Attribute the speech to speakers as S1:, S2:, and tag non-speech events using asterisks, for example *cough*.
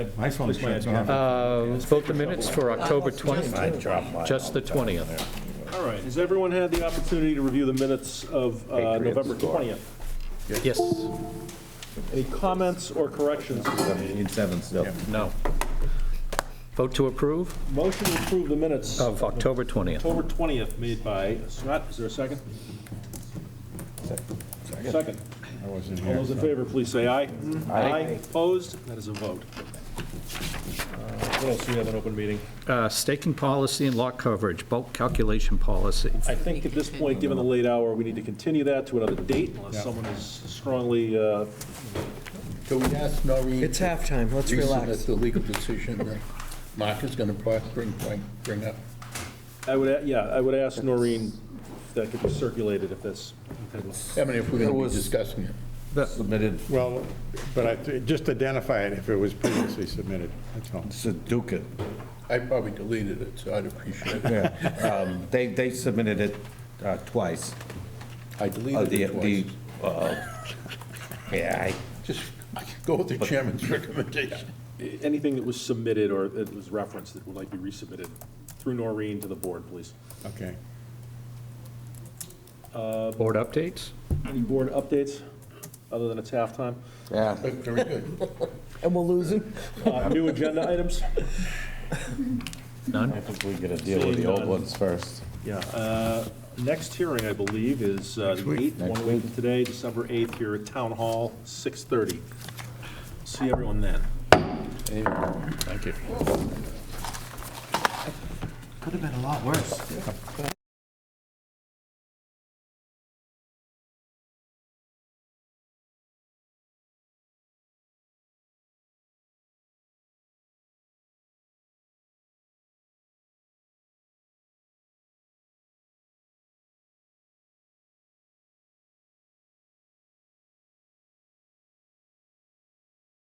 S1: My phone's shut off.
S2: Uh, Vote the minutes for October 20th,
S3: dropped mine.
S2: just the 20th.
S4: All right, has everyone had the opportunity to review the minutes of uh,
S3: Patriots
S4: November
S3: score.
S4: 20th?
S2: Yes,
S4: Any comments or corrections?
S1: In seven still.
S2: no. Vote to approve
S4: Motion to approve the minutes of
S2: of October 20th.
S4: October 20th made by Scott, is there a second? Second.
S1: I wasn't
S4: All
S1: here.
S4: those in favor, please say aye.
S3: Aye.
S4: Opposed? That is a vote. Uh, What else do we have in open meeting?
S2: Uh, Staking policy and lot coverage, bulk calculation policy.
S4: I think at this point, given the late hour, we need to continue that to another date unless someone is strongly, uh,
S5: Can we ask Noreen?
S6: It's halftime, let's
S5: reason
S6: relax.
S5: That the legal decision that Mark is going to bring, bring- bring up.
S4: I would, a- yeah, I would ask Noreen if that could be circulated if this.
S5: I mean, if we're going to
S3: was-
S5: be discussing it.
S1: Submitted,
S7: Well, but I, thi- just identify it if it was previously submitted, that's all.
S1: Seduca.
S5: I probably deleted it, so I'd appreciate it.
S1: Yeah. *laughs* Um, They, they submitted it uh, twice.
S5: I
S1: Uh,
S5: deleted
S1: the-
S5: it
S1: the,
S5: twice.
S1: uh, Yeah,
S5: Just go with the chairman's recommendation.
S4: Anything that was submitted or that was referenced that would like be resubmitted through Noreen to the board, please.
S7: Okay.
S2: Board updates?
S4: Any board updates, other than it's halftime?
S1: I,
S5: But Very good.
S6: And we're losing?
S4: Uh, New agenda items?
S2: None?
S8: think we gotta deal with the old ones first.
S4: Yeah. uh, Next hearing, I believe, is uh, the 8th, one week from today, December 8th, here at Town Hall, 6:30. See everyone then.
S3: Thank you.
S6: Could have been a lot worse.